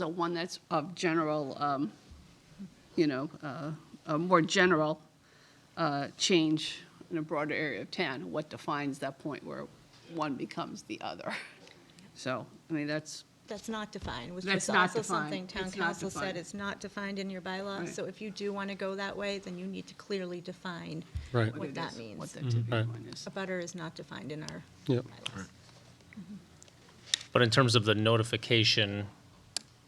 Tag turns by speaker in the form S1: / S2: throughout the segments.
S1: the one that's of general, um, you know, uh, a more general uh, change in a broader area of town, what defines that point where one becomes the other. So, I mean, that's,
S2: That's not defined, which
S1: That's
S2: is
S1: not
S2: also
S1: defined.
S2: something town
S1: It's not
S2: council
S1: defined.
S2: said, it's not defined in your
S1: Right.
S2: bylaws. So if you do want to go that way, then you need to clearly define
S3: Right.
S1: what
S2: what
S1: it
S2: that
S1: is, What
S2: means.
S1: the tipping
S3: Right.
S1: point is.
S2: A butter is not defined in our
S3: Yep.
S2: bylaws.
S4: But in terms of the notification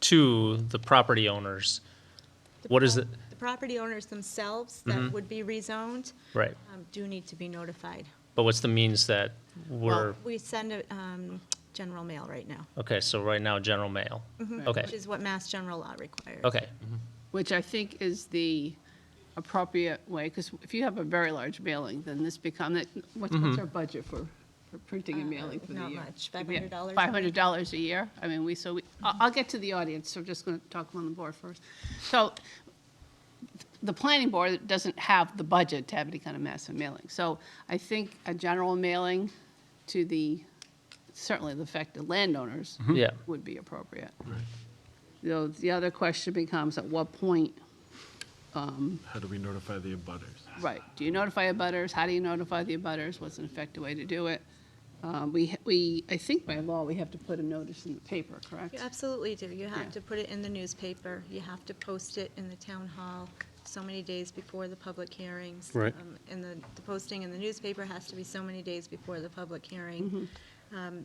S4: to the property owners,
S2: The
S4: What is
S2: pro-
S4: it- Mm-hmm.
S2: The property owners themselves that would be rezoned
S4: right,
S2: um, do need to be notified.
S4: but what's the means that we're,
S2: Well, We send a, um, general mail right now,
S4: okay, so right now, general mail? Okay,
S2: Mm-hmm. which is what Mass General Law requires.
S4: okay,
S1: which I think is the appropriate way, because if you have a very large mailing, then this become, that- what's, what's our budget for, for printing and mailing for the year?
S2: Uh, Not much, $500 a
S1: Five hundred dollars a year? I mean, we, so we, I'll, I'll get to the audience, so I'm just gonna talk on the board first. So, the planning board doesn't have the budget to have any kind of massive mailing. So I think a general mailing to the, certainly the affected landowners
S4: yeah,
S1: would be appropriate. You know, the other question becomes, at what point,
S5: How do we notify the abutters?
S1: right, do you notify abutters? How do you notify the abutters? What's an effective way to do it? Um, We, we, I think by law, we have to put a notice in the paper, correct?
S2: You absolutely do. You
S1: Yeah.
S2: have to put it in the newspaper, you have to post it in the town hall so many days before the public hearings.
S3: Right.
S2: Um, And the, the posting in the newspaper has to be so many days before the public hearing. Um,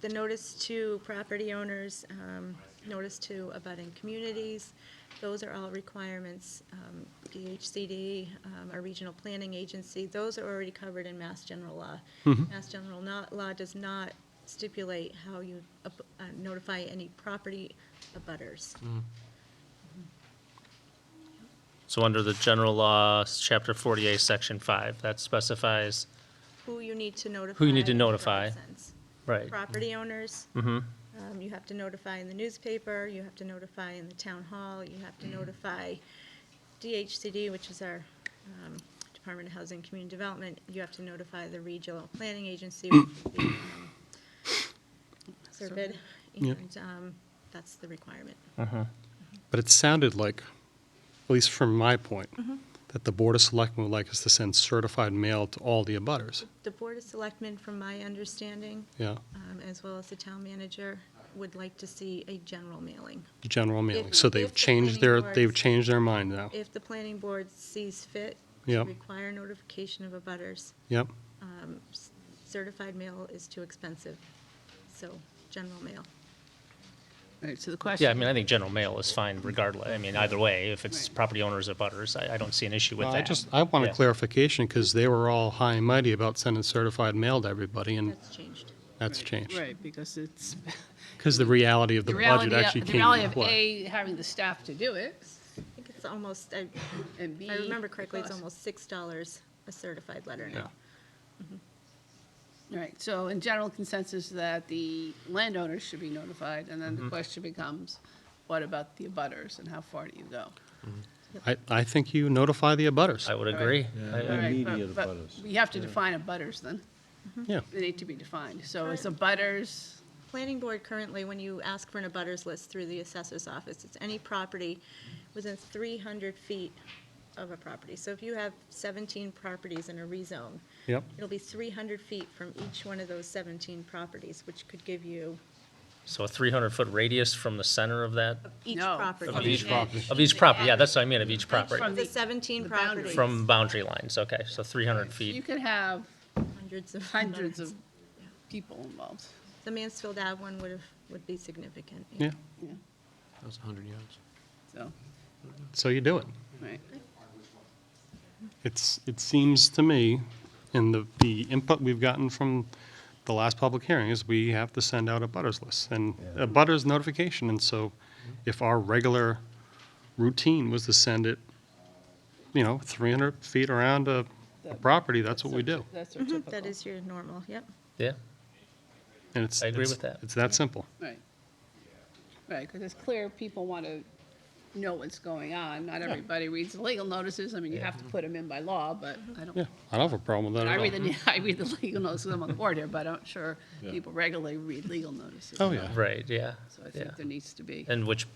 S2: The notice to property owners, um, notice to abutting communities, those are all requirements. Um, DHCD, um, our regional planning agency, those are already covered in Mass General Law.
S4: Mm-hmm.
S2: Mass General no- Law does not stipulate how you ab- uh, notify any property abutters.
S4: Mm. so under the general law, chapter forty-eight, section five, that specifies,
S2: Who you need to notify.
S4: Who you need to
S2: in the
S4: notify.
S2: sense.
S4: right,
S2: Property owners.
S4: mm-hmm,
S2: Um, You have to notify in the newspaper, you have to notify in the town hall, you have to
S4: Mm-hmm.
S2: notify DHCD, which is our um, Department of Housing and Community Development, you have to notify the regional planning agency, which is the, um, CERBID, and um, that's the requirement.
S3: But it sounded like, at least from my point, that the Board of Selectmen would like us to send certified mail to all the abutters.
S2: The Board of Selectmen, from my understanding,
S3: Yeah,
S2: um, as well as the town manager, would like to see a general mailing.
S3: the general mailing.
S2: If-
S3: So
S2: if
S3: they've
S2: the
S3: changed
S2: planning
S3: their,
S2: boards-
S3: they've changed their mind now.
S2: If the planning board sees fit
S3: Yeah.
S2: to require notification of abutters,
S3: Yep,
S2: um, s- certified mail is too expensive, so general mail.
S1: Right, so the question.
S4: yeah, I mean, I think general mail is fine regardless, I mean, either way, if it's
S1: Right.
S4: property owners or butters, I, I don't see an issue with
S3: Well,
S4: that.
S3: I just, I want a
S4: Yeah.
S3: clarification, because they were all high and mighty about sending certified mail to everybody, and
S2: That's changed.
S3: that's changed.
S1: Right, because it's,
S3: Because the reality of the
S1: the
S3: budget
S1: reality,
S3: actually
S1: of- the
S3: came
S1: reality
S3: into
S1: of
S3: play.
S1: A, having the staff to do it,
S2: I think it's almost, I
S1: and B.
S2: I remember correctly, it's
S1: because-
S2: almost six dollars a certified letter now.
S1: Right, so in general consensus that the landowners should be notified, and
S3: Mm-hmm.
S1: then the question becomes, what about the abutters and how far do you go?
S3: I, I think you notify the abutters.
S4: I would agree, I-
S1: All right, but-
S5: Immediate
S1: but
S5: abutters.
S1: We have to define abutters then,
S3: Yeah,
S1: they need to be defined, so it's abutters,
S2: Planning board currently, when you ask for an abutters list through the assessor's office, it's any property within three hundred feet of a property. So if you have seventeen properties in a rezone,
S3: yep,
S2: it'll be three hundred feet from each one of those seventeen properties, which could give you
S4: so a three hundred foot radius from the center of that,
S2: each
S1: No,
S2: property.
S1: from Of each
S3: property.
S4: of each property, yeah, that's what I mean, of each property,
S1: From
S2: The
S1: the-
S2: seventeen
S1: the boundaries.
S2: properties.
S4: from boundary lines, okay, so three hundred
S1: you
S4: feet,
S1: could have
S2: Hundreds of.
S1: hundreds
S2: abutters.
S1: of people involved.
S2: The Mansfield Ave one would have, would be significant.
S3: yeah.
S1: Yeah,
S6: That was 100 yards.
S1: so,
S3: So you do it.
S1: right,
S3: It's, it seems to me, and the, the input we've gotten from the last public hearing is we have to send out a butters list and a butters notification. And so if our regular routine was to send it, you know, 300 feet around a a
S1: That-
S3: property, that's what we do.
S1: that's our
S2: Mhm, That
S1: typical,
S2: is your normal, yep.
S4: yeah,
S3: And it's,
S4: I agree
S3: it's-
S4: with that.
S3: It's that simple.
S1: right. Right, because it's clear people want to know what's going on. Not everybody reads the legal notices. I mean, you have to put them in by law, but I don't.
S3: Yeah, I don't have a problem with that
S1: I
S3: at all.
S1: read the, I read the legal notices, I'm on the board here, but I'm sure people regularly read legal notices.
S3: Oh, yeah.
S4: Right, yeah.
S1: So I
S4: yeah.
S1: think there needs to be.
S4: And which,